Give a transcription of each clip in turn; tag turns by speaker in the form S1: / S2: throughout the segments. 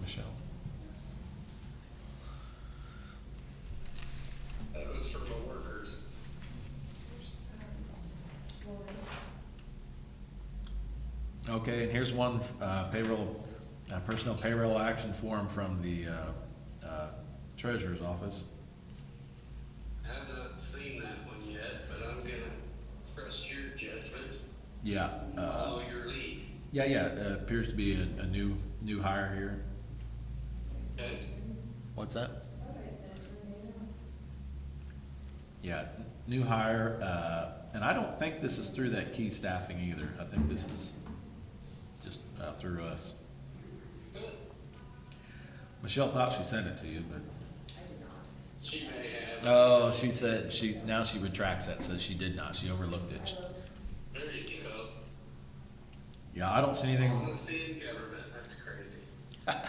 S1: Michelle.
S2: That was for the workers.
S1: Okay, and here's one, uh, payroll, uh, personnel payroll action form from the, uh, uh, treasurer's office.
S2: Have not seen that one yet, but I'm gonna trust your judgment,
S1: Yeah, uh,
S2: follow your lead.
S1: yeah, yeah, uh, appears to be a, a new, new hire here.
S2: Okay?
S1: What's that? Yeah, new hire, uh, and I don't think this is through that key staffing either. I think this is just, uh, through us.
S2: Good.
S1: Michelle thought she sent it to you, but.
S2: She may have.
S1: Oh, she said she, now she retracts that, says she did not. She overlooked it.
S2: There you go.
S1: Yeah, I don't see anything,
S2: Honesty in government, that's crazy.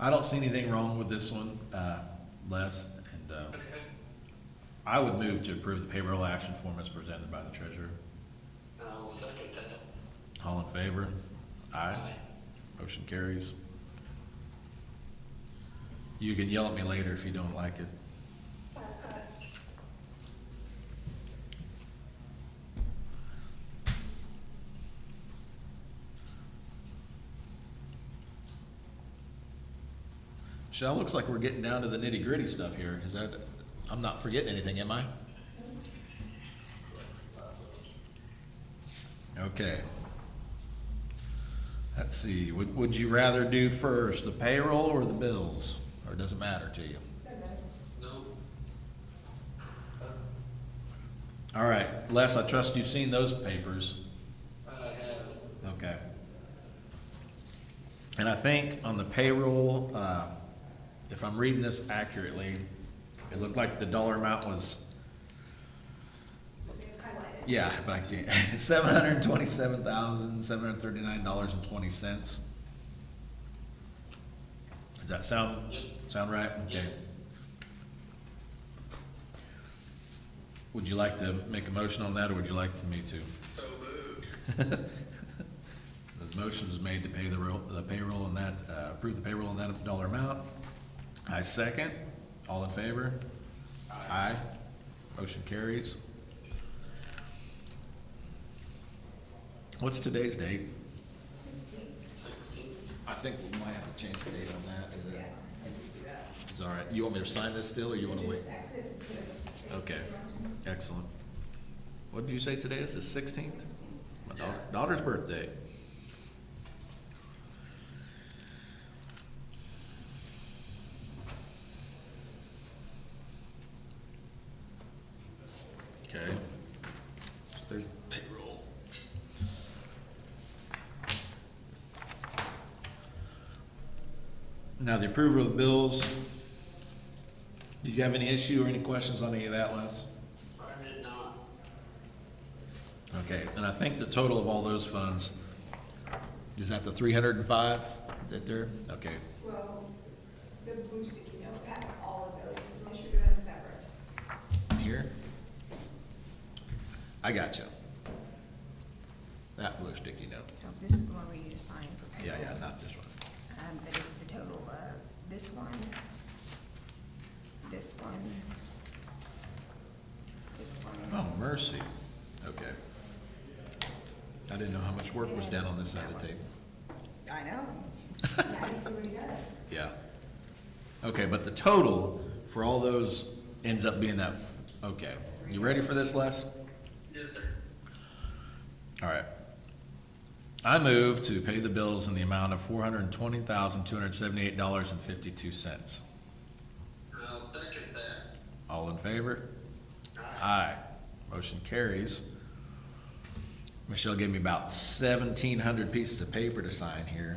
S1: I don't see anything wrong with this one, uh, Les. And, uh,
S2: Okay.
S1: I would move to approve the payroll action form as presented by the treasurer.
S2: I'll second that.
S1: All in favor? Aye. Motion carries. You can yell at me later if you don't like it. Michelle, looks like we're getting down to the nitty gritty stuff here. Is that, I'm not forgetting anything, am I? Okay. Let's see, would, would you rather do first the payroll or the bills? Or does it matter to you?
S2: No,
S1: All right, Les, I trust you've seen those papers.
S2: I have,
S1: Okay. And I think on the payroll, uh, if I'm reading this accurately, it looked like the dollar amount was, yeah, but I can't, seven hundred and twenty-seven thousand, seven hundred and thirty-nine dollars and twenty cents. Does that sound, sound right? Okay.
S2: Yeah.
S1: Would you like to make a motion on that, or would you like me to?
S2: so moved.
S1: The motion is made to pay the real, the payroll and that, uh, approve the payroll and that dollar amount. I second. All in favor? Aye. Motion carries. What's today's date?
S2: Sixteen.
S1: I think we might have to change the date on that. Is
S3: Yeah,
S1: it-
S3: I can see that.
S1: It's all right. You want me to sign this still, or you want to wait?
S3: Just exit and put it-
S1: Okay. Excellent. What did you say today is, the sixteenth?
S3: Sixteen.
S1: My daugh- daughter's birthday. Okay. So There's payroll. Now, the approval of the bills. Did you have any issue or any questions on any of that, Les?
S2: I did not.
S1: Okay, and I think the total of all those funds, is that the three hundred and five that they're, okay,
S3: Well, the blue sticky note has all of those, unless you're doing them separate.
S1: here? I got you. That blue sticky note,
S3: No, this is the one where you just sign for
S1: yeah, yeah, not this one.
S3: Um, but it's the total of this one, this one, this one.
S1: Oh, mercy, okay. I didn't know how much work was done on this side of the table,
S3: I know. Yeah, I see what he does.
S1: yeah. Okay, but the total for all those ends up being that, f- okay, you ready for this, Les?
S2: Yes, sir.
S1: All right. I move to pay the bills in the amount of four hundred and twenty thousand, two hundred and seventy-eight dollars and fifty-two cents.
S2: I'll second that.
S1: All in favor?
S2: Aye.
S1: Aye. Motion carries. Michelle gave me about seventeen hundred pieces of paper to sign here.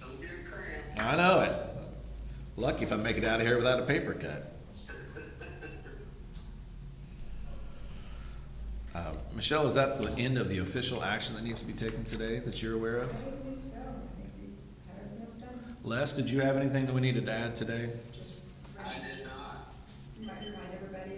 S2: Don't get a cramp.
S1: I know it. Lucky if I make it out of here without a paper cut. Uh, Michelle, is that the end of the official action that needs to be taken today that you're aware of?
S3: I believe so. I think we had everything else done.
S1: Les, did you have anything that we needed to add today?
S3: Just